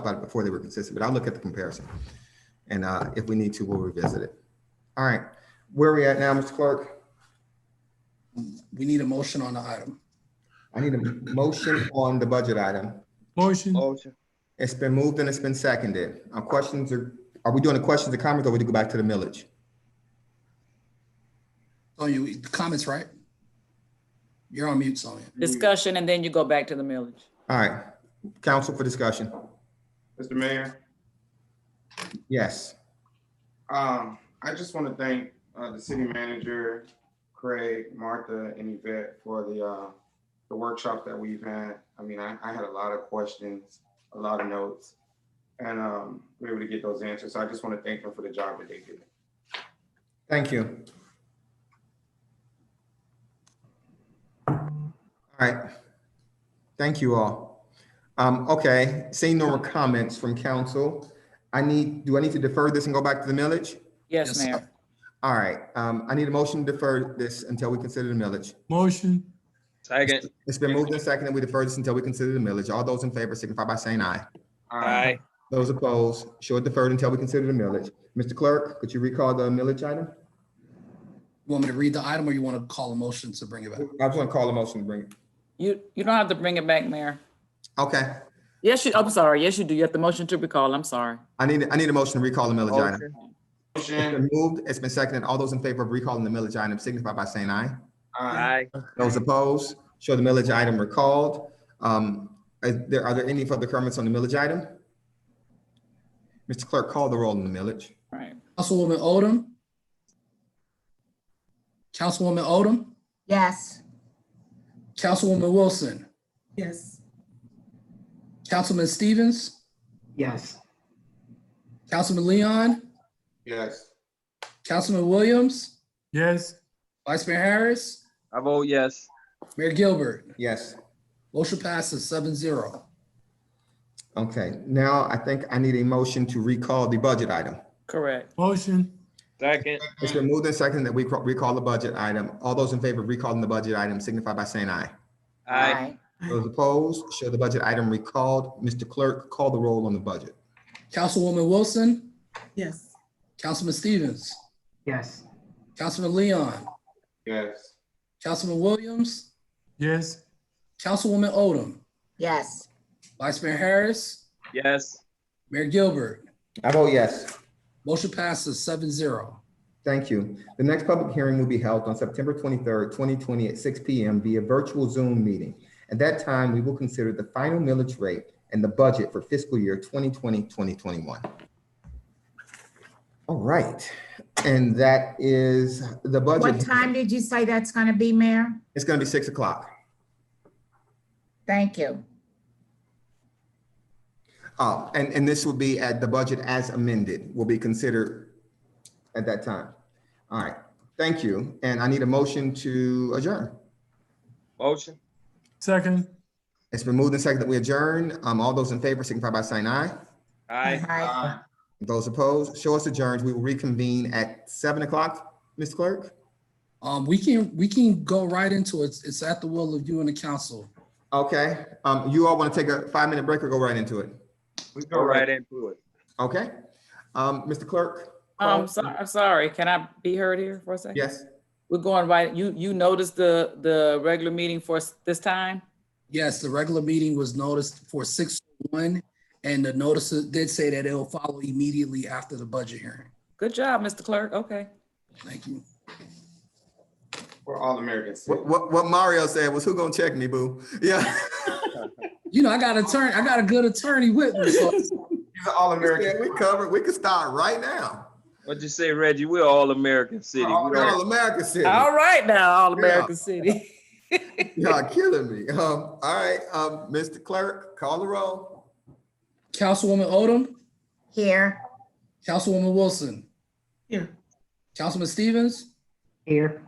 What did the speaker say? about it before they were consistent, but I'll look at the comparison. And uh, if we need to, we'll revisit it. All right, where are we at now, Mr. Clerk? We need a motion on the item. I need a motion on the budget item. Motion, Oh. Motion. It's been moved and it's been seconded. Our questions are, are we doing the questions and comments or we do go back to the millage? Sonya, we- Oh, the comments, right? You're on mute, Sonya. discussion and then you go back to the millage. All right, council for discussion. Mr. Mayor, Yes, um, I just want to thank, uh, the city manager, Craig, Martha, and Yvette for the, uh, the workshop that we've had. I mean, I, I had a lot of questions, a lot of notes, and, um, we were able to get those answers. So I just want to thank them for the job that they did. thank you. All right, thank you all. Um, okay, seeing no more comments from council, I need, do I need to defer this and go back to the millage? Yes, Yes, sir. Mayor. All right, um, I need a motion to defer this until we consider the millage. motion, Second. It's been moved and seconded, we defer this until we consider the millage. All those in favor signify by saying aye. Aye. Those opposed, show it deferred until we consider the millage. Mr. Clerk, could you recall the millage item? You want me to read the item or you want to call a motion to bring it back? I was gonna call a motion to bring it. You, you don't have to bring it back, Mayor. Okay, Yes, you, I'm sorry. Yes, you do. You have the motion to recall. I'm sorry. I need, I need a motion to recall the millage item. Motion. It's Motion. been moved, it's been seconded. All those in favor of recalling the millage item signify by saying aye. Aye. Those opposed, show the millage item recalled. Um, is there, are there any further comments on the millage item? Mr. Clerk, call the roll on the millage. Right. Councilwoman Odom? Councilwoman Odom? Yes. Councilwoman Wilson? Yes. Councilman Stevens? Yes. Councilman Leon? Yes. Councilman Williams? yes, Vice Mayor Harris? I vote yes. Mayor Gilbert? Yes. Motion passes seven zero. Okay, now I think I need a motion to recall the budget item. Correct. motion, Second. It's been moved and seconded that we ca- recall the budget item. All those in favor of recalling the budget item signify by saying aye. Aye. Those opposed, show the budget item recalled. Mr. Clerk, call the roll on the budget. Councilwoman Wilson? Yes. Councilman Stevens? Yes. Councilman Leon? Yes. Councilman Williams? yes, Councilwoman Odom? Yes. Vice Mayor Harris? Yes. Mayor Gilbert? I vote yes. Motion passes seven zero. Thank you. The next public hearing will be held on September twenty-third, twenty twenty at six P M via virtual Zoom meeting. At that time, we will consider the final millage rate and the budget for fiscal year 2020-2021. All right, and that is the budget. What time did you say that's gonna be, Mayor? It's gonna be six o'clock. Thank you. Uh, and, and this will be at the budget as amended, will be considered at that time. All right, thank you. And I need a motion to adjourn. Motion. second, It's been moved and seconded that we adjourn. Um, all those in favor signify by saying aye. Aye. Aye. Those opposed, show us adjourned. We will reconvene at seven o'clock, Ms. Clerk. Um, we can, we can go right into it. It's at the will of you and the council. Okay, um, you all want to take a five-minute break or go right into it? We go Go right right. into it. Okay, um, Mr. Clerk? Um, so, I'm sorry. Can I be heard here for a second? Yes, We're going right. You, you noticed the, the regular meeting for s- this time? Yes, the regular meeting was noticed for six one, and the notices did say that it'll follow immediately after the budget hearing. Good job, Mr. Clerk. Okay. Thank you. For all Americans. what, what, what Mario said was, who gonna check me, boo? Yeah. You know, I got attorney, I got a good attorney with me, so He's an all American. We covered, we could start right now. What'd you say, Reggie? We're all American city. We All don't- All America City. All right now, All American City. Y'all killing me. Um, all right, um, Mr. Clerk, call the roll. Councilwoman Odom, Here. Councilwoman Wilson. Here. Councilman Stevens, Here.